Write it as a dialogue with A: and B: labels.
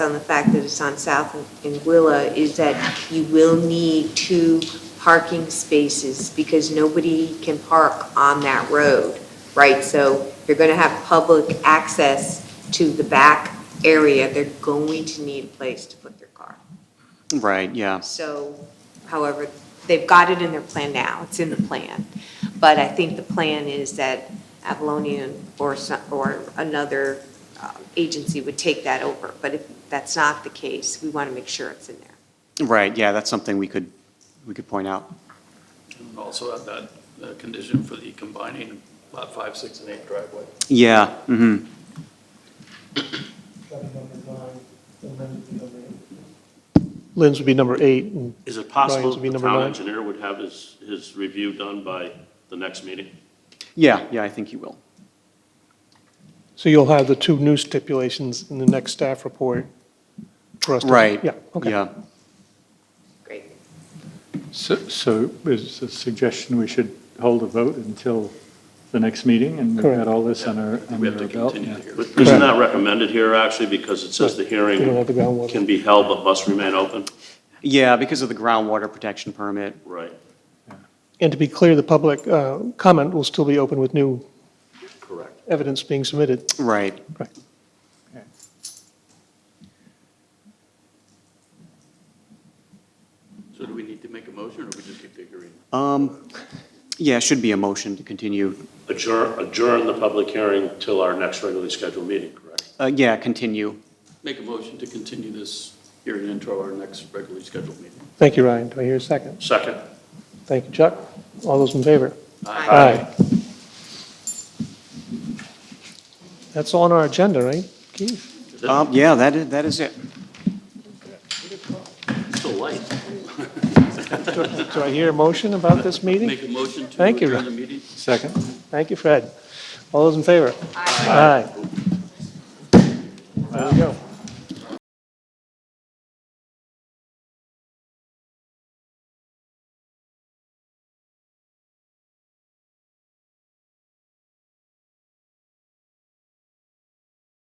A: on the fact that it's on South and Willa is that you will need two parking spaces because nobody can park on that road, right? So you're going to have public access to the back area. They're going to need a place to put their car.
B: Right, yeah.
A: So, however, they've got it in their plan now, it's in the plan. But I think the plan is that Avalonian or some, or another um, agency would take that over. But if that's not the case, we want to make sure it's in there.
B: Right, yeah, that's something we could, we could point out.
C: And Also add that uh, condition for the combining lot five, six, and eight driveway.
B: Yeah, hmm
D: Lynn's would be number eight, and
E: Is it
D: Brian's
E: possible
D: would be
E: the
D: number
E: town
D: nine.
E: engineer would have his, his review done by the next meeting?
B: Yeah, yeah, I think you will.
D: So you'll have the two new stipulations in the next staff report for us to.
B: Right.
D: Yeah, okay.
B: Yeah,
A: Great.
F: So, so is a suggestion we should hold a vote until the next meeting and we've
D: Correct.
F: got all this on our,
C: We
F: under
C: have to
F: our belt?
C: continue the
F: yeah.
C: hearing.
E: But Isn't that recommended here, actually, because it says the
D: You don't have
E: hearing
D: the
E: can
D: groundwater.
E: be held but must remain open?
B: yeah, because of the groundwater protection permit.
E: Right,
D: And to be clear, the public uh, comment will still be open with new
E: correct.
D: evidence being submitted.
B: Right,
D: Correct.
F: Okay.
C: So do we need to make a motion, or we just keep the hearing?
B: um, yeah, it should be a motion to continue,
E: Adjourn, adjourn the public hearing till our next regularly scheduled meeting, correct?
B: uh, yeah, continue.
C: Make a motion to continue this hearing into our next regularly scheduled meeting.
D: Thank you, Ryan. Do I hear a second?
E: Second?
D: Thank you, Chuck. All those in favor?
A: Aye.
D: That's on our agenda, right, Keith?
E: Is it
B: Um, yeah, that is, that is it.
E: Still light.
D: Do I hear a motion about this meeting?
C: Make a motion to
D: Thank you.
C: adjourn the meeting?
F: Second?
D: Thank you, Fred. All those in favor? Aye. There we go.